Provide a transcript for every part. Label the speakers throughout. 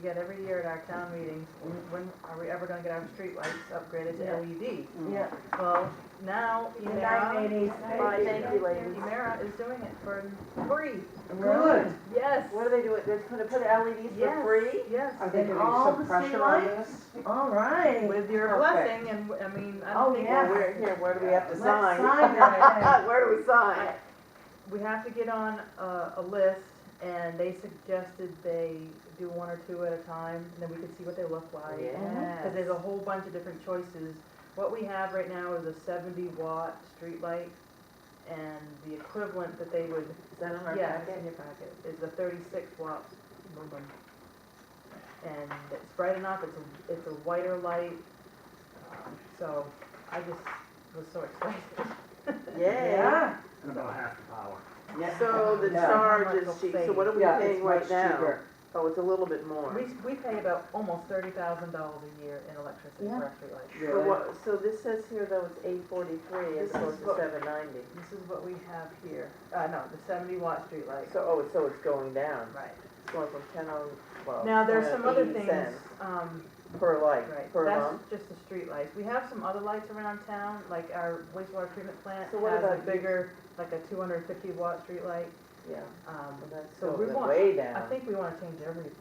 Speaker 1: we get every year at our town meetings, when are we ever gonna get our streetlights upgraded
Speaker 2: Yeah.
Speaker 1: to LED?
Speaker 2: Yeah.
Speaker 1: Well, now
Speaker 2: The nine
Speaker 1: Emera,
Speaker 2: eighties.
Speaker 3: Bye, thank you, ladies.
Speaker 1: Emera is doing it for free,
Speaker 3: Mm.
Speaker 2: Good.
Speaker 1: yes.
Speaker 3: What are they doing? They're gonna put LEDs for
Speaker 1: Yes.
Speaker 3: free?
Speaker 1: Yes,
Speaker 4: Are they
Speaker 3: And
Speaker 4: putting
Speaker 3: all
Speaker 4: some
Speaker 3: the
Speaker 4: pressure on
Speaker 3: streetlights?
Speaker 4: this?
Speaker 2: All right.
Speaker 1: with your
Speaker 4: Perfect.
Speaker 1: blessing and, I mean, I
Speaker 2: Oh,
Speaker 1: don't think,
Speaker 2: yeah.
Speaker 3: Well, we're here, where do we have to
Speaker 2: Let's
Speaker 3: sign?
Speaker 2: sign right
Speaker 3: Where do we sign?
Speaker 1: we have to get on a, a list and they suggested they do one or two at a time and then we could see what they look
Speaker 3: Oh,
Speaker 1: like. Cause there's a
Speaker 3: Yes.
Speaker 1: whole bunch of different choices. What we have right now is a seventy watt streetlight and the equivalent that they would,
Speaker 3: Is that on our
Speaker 1: yeah, it's
Speaker 3: packet?
Speaker 1: in your packet, is the thirty-six watt lumen. And it's bright enough, it's a, it's a whiter light, um, so I just was so excited.
Speaker 3: Yeah.
Speaker 2: Yeah.
Speaker 5: And about half the power.
Speaker 3: So the
Speaker 4: Yeah.
Speaker 3: charge is cheap, so what are we
Speaker 4: Yeah, it's
Speaker 3: paying right
Speaker 4: much
Speaker 3: now?
Speaker 4: cheaper.
Speaker 3: Oh, it's a little bit more.
Speaker 1: We, we pay about almost thirty thousand dollars a year in electricity for our streetlights.
Speaker 3: For what, so this says here though it's eight forty-three
Speaker 1: This
Speaker 3: as
Speaker 1: is
Speaker 3: opposed to
Speaker 1: what-
Speaker 3: seven ninety.
Speaker 1: This is what we have here, uh, no, the seventy watt streetlight.
Speaker 3: So, oh, so it's going down.
Speaker 1: Right.
Speaker 3: It's going from ten on, well,
Speaker 1: Now, there's some other
Speaker 3: 80
Speaker 1: things,
Speaker 3: cents
Speaker 1: um,
Speaker 3: Per light,
Speaker 1: right,
Speaker 3: per month.
Speaker 1: that's just the streetlights. We have some other lights around town, like our wastewater treatment plant
Speaker 3: So what
Speaker 1: has a
Speaker 3: about you-
Speaker 1: bigger, like a two hundred and fifty watt streetlight.
Speaker 3: Yeah,
Speaker 1: Um,
Speaker 3: well, that's
Speaker 1: so we
Speaker 3: going
Speaker 1: want,
Speaker 3: way
Speaker 1: I
Speaker 3: down.
Speaker 1: think we wanna change everything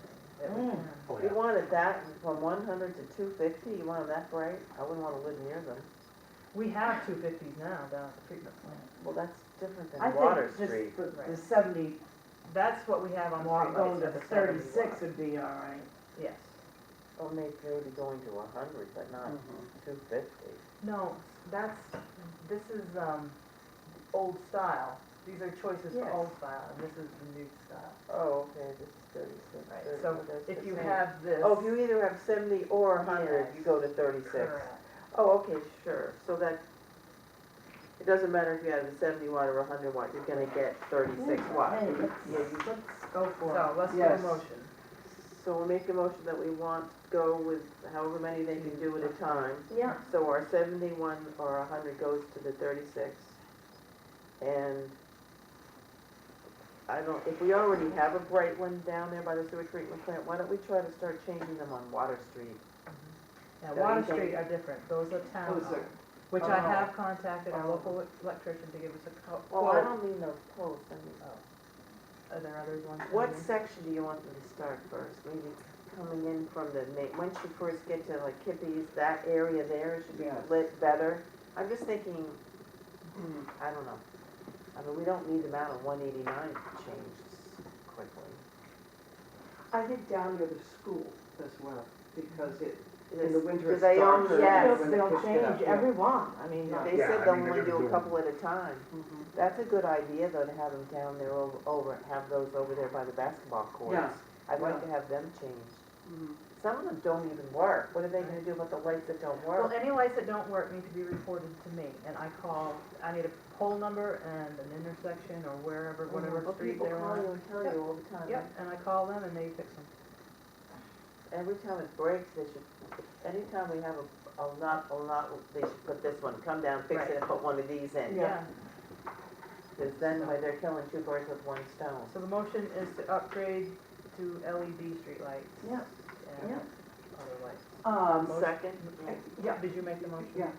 Speaker 1: that we
Speaker 2: Mm.
Speaker 1: can.
Speaker 5: Oh,
Speaker 3: You
Speaker 5: yeah.
Speaker 3: wanted that from one hundred to two fifty, you want them that bright? I wouldn't wanna live near them.
Speaker 1: We have two fifties now down at the treatment plant.
Speaker 3: Well, that's different
Speaker 4: I
Speaker 3: than Water
Speaker 4: think
Speaker 3: Street.
Speaker 4: just the, the
Speaker 1: Right.
Speaker 4: seventy,
Speaker 1: That's what we have on the
Speaker 4: walk
Speaker 1: streetlights
Speaker 4: going
Speaker 1: for
Speaker 4: to
Speaker 1: the
Speaker 4: the
Speaker 1: seventy
Speaker 4: thirty-six
Speaker 1: watt.
Speaker 4: would be all right.
Speaker 1: Yes.
Speaker 3: Well, may- maybe going to a hundred, but not
Speaker 4: Hmm.
Speaker 3: two fifty.
Speaker 1: No, that's, this is, um, old style. These are choices for
Speaker 3: Yes.
Speaker 1: old style, and this is the new style.
Speaker 3: Oh, okay, this is thirty-six,
Speaker 1: Right,
Speaker 3: thirty,
Speaker 1: so
Speaker 3: oh, that's
Speaker 1: if
Speaker 3: the
Speaker 1: you
Speaker 3: same.
Speaker 1: have this.
Speaker 3: Oh, if you either have seventy or a hundred, you
Speaker 1: Yes.
Speaker 3: go to thirty-six.
Speaker 1: Correct.
Speaker 3: Oh, okay, sure, so that, it doesn't matter if you have a seventy watt or a hundred watt, you're gonna get thirty-six watt.
Speaker 4: Hey,
Speaker 3: Yeah,
Speaker 4: let's,
Speaker 3: you-
Speaker 4: let's go
Speaker 1: So
Speaker 4: for
Speaker 1: let's do a
Speaker 4: Yes.
Speaker 1: motion.
Speaker 3: So we'll make a motion that we want to go with however many they can do at a time.
Speaker 2: Yeah.
Speaker 3: So our seventy-one or a hundred goes to the thirty-six. And I don't, if we already have a bright one down there by the sewer treatment plant, why don't we try to start changing them on Water Street?
Speaker 1: Now,
Speaker 3: Yeah,
Speaker 1: Water
Speaker 3: you can-
Speaker 1: Street are different, those are town
Speaker 4: Those are-
Speaker 1: owned, which I
Speaker 4: Oh.
Speaker 1: have contacted our
Speaker 3: Oh.
Speaker 1: local e-, electrician to give us a co-
Speaker 3: Well, I
Speaker 1: quote.
Speaker 3: don't mean those posts, I
Speaker 1: Are
Speaker 3: mean,
Speaker 1: there others ones? in
Speaker 3: what
Speaker 1: here?
Speaker 3: section do you want them to start first? Maybe coming in from the main, once you first get to like Kippies, that area there should be
Speaker 4: Yeah.
Speaker 3: lit better. I'm just thinking
Speaker 4: it.
Speaker 3: I don't know. I mean, we don't need them out on one eighty-nine changed quickly.
Speaker 4: I think down near the school as well, because it, in the
Speaker 3: This-
Speaker 4: winter it's
Speaker 3: do they own-
Speaker 4: darker.
Speaker 3: yes.
Speaker 4: when it
Speaker 2: They'll
Speaker 4: picks it up,
Speaker 2: change
Speaker 4: yeah.
Speaker 2: every one, I mean,
Speaker 4: Yeah.
Speaker 2: they-
Speaker 3: They
Speaker 5: Yeah,
Speaker 3: said
Speaker 5: I
Speaker 3: they'll
Speaker 5: mean,
Speaker 3: only
Speaker 5: they're gonna
Speaker 3: do a
Speaker 5: do
Speaker 3: couple at a time.
Speaker 4: Mhm.
Speaker 3: That's a good idea though, to have them down there over, over, have those over there by the basketball
Speaker 4: Yeah.
Speaker 3: courts. I'd like
Speaker 4: Yeah.
Speaker 3: to have them changed.
Speaker 4: Mhm.
Speaker 3: Some of them don't even work. What are they gonna do about the lights that don't
Speaker 1: Well,
Speaker 3: work?
Speaker 1: any lights that don't work need to be reported to me, and I call, I need a pole number and an intersection or wherever, whatever
Speaker 3: Well,
Speaker 1: street they're
Speaker 3: Oh, People call
Speaker 1: on.
Speaker 3: you and tell you all the time.
Speaker 1: Yep, and I call them and they fix them.
Speaker 3: Every time it breaks, they should, anytime we have a, a lot, a lot, they should put this one, come down, fix
Speaker 1: Right.
Speaker 3: it, and put one of these in.
Speaker 4: Yeah.
Speaker 3: Because then why they're killing two birds with one stone.
Speaker 1: So the motion is to upgrade to LED streetlights.
Speaker 4: Yeah.
Speaker 1: And
Speaker 4: Yeah.
Speaker 1: other lights.
Speaker 4: Um,
Speaker 3: Second,
Speaker 4: yeah,
Speaker 1: Did you make the motion?
Speaker 4: yeah.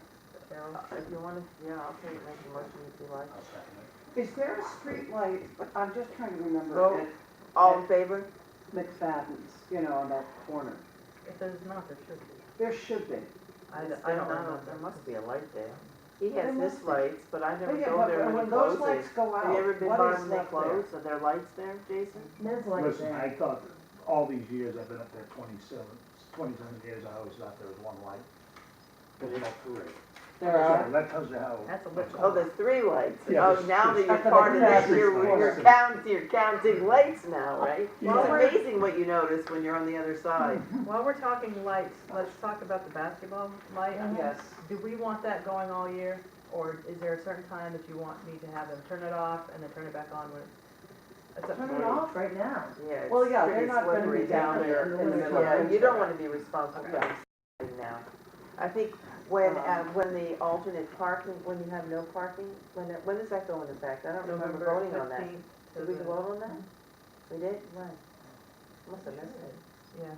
Speaker 1: Carol?
Speaker 3: uh, if you wanna, yeah, I'll take, make a motion if you like.
Speaker 5: I'll second it.
Speaker 4: Is there a streetlight, but I'm just trying to
Speaker 3: Oh.
Speaker 4: remember, at
Speaker 3: All in favor?
Speaker 4: McFadden's, you know, on that corner.
Speaker 1: If there's not, there should be.
Speaker 4: There should be.
Speaker 1: I,
Speaker 3: Yes,
Speaker 1: I don't
Speaker 3: there are-
Speaker 1: know.
Speaker 3: There must be a light there. He
Speaker 4: There
Speaker 3: has his
Speaker 4: must be.
Speaker 3: lights, but I never
Speaker 4: But yeah,
Speaker 3: go there
Speaker 4: but
Speaker 3: when he
Speaker 4: when those lights
Speaker 3: closes.
Speaker 4: go out,
Speaker 3: Have you ever been by
Speaker 4: what is
Speaker 3: when they
Speaker 4: left there?
Speaker 3: close? Are there lights there, Jason?
Speaker 2: there's like
Speaker 5: Listen, I
Speaker 2: that.
Speaker 5: thought, all these years, I've been up there twenty-seven, twenty-seven years, I always thought there was one light. There's not three.
Speaker 4: There
Speaker 5: So
Speaker 4: are,
Speaker 5: That tells you how.
Speaker 1: That's a little-
Speaker 3: Oh, there's three lights.
Speaker 5: Yeah,
Speaker 3: Oh,
Speaker 5: there's
Speaker 3: now that
Speaker 5: three.
Speaker 3: you're
Speaker 4: That's what
Speaker 3: part of
Speaker 4: I
Speaker 3: that,
Speaker 4: said.
Speaker 3: you're, you're
Speaker 5: Yeah.
Speaker 3: counting, you're counting lights now, right?
Speaker 5: Yeah.
Speaker 3: It's amazing what you notice when you're on the other side.
Speaker 1: While we're talking lights, let's talk about the basketball light.
Speaker 3: Mm-hmm.
Speaker 4: yes.
Speaker 1: Do we want that going all year? Or is there a certain time that you want me to have them turn it off and then turn it back on when it's? it's up to
Speaker 2: Turn
Speaker 1: you.
Speaker 2: it off right now.
Speaker 3: Yeah,
Speaker 4: Well,
Speaker 3: it's
Speaker 4: yeah, they're
Speaker 3: pretty
Speaker 4: not gonna be
Speaker 3: slippery
Speaker 4: down
Speaker 3: down
Speaker 4: there
Speaker 3: there.
Speaker 4: in
Speaker 2: the middle
Speaker 4: of
Speaker 3: Yeah, you
Speaker 4: winter.
Speaker 3: don't wanna be responsible for
Speaker 4: Okay.
Speaker 3: it now. I think when, uh,
Speaker 4: Um,
Speaker 3: when the alternate parking, when you have no parking, when, it- when does that go into effect? I don't remember
Speaker 1: November
Speaker 3: voting on that.
Speaker 1: 15th to
Speaker 3: Did we
Speaker 1: the-
Speaker 3: vote on that? We did? When? Must have missed it.
Speaker 1: yeah.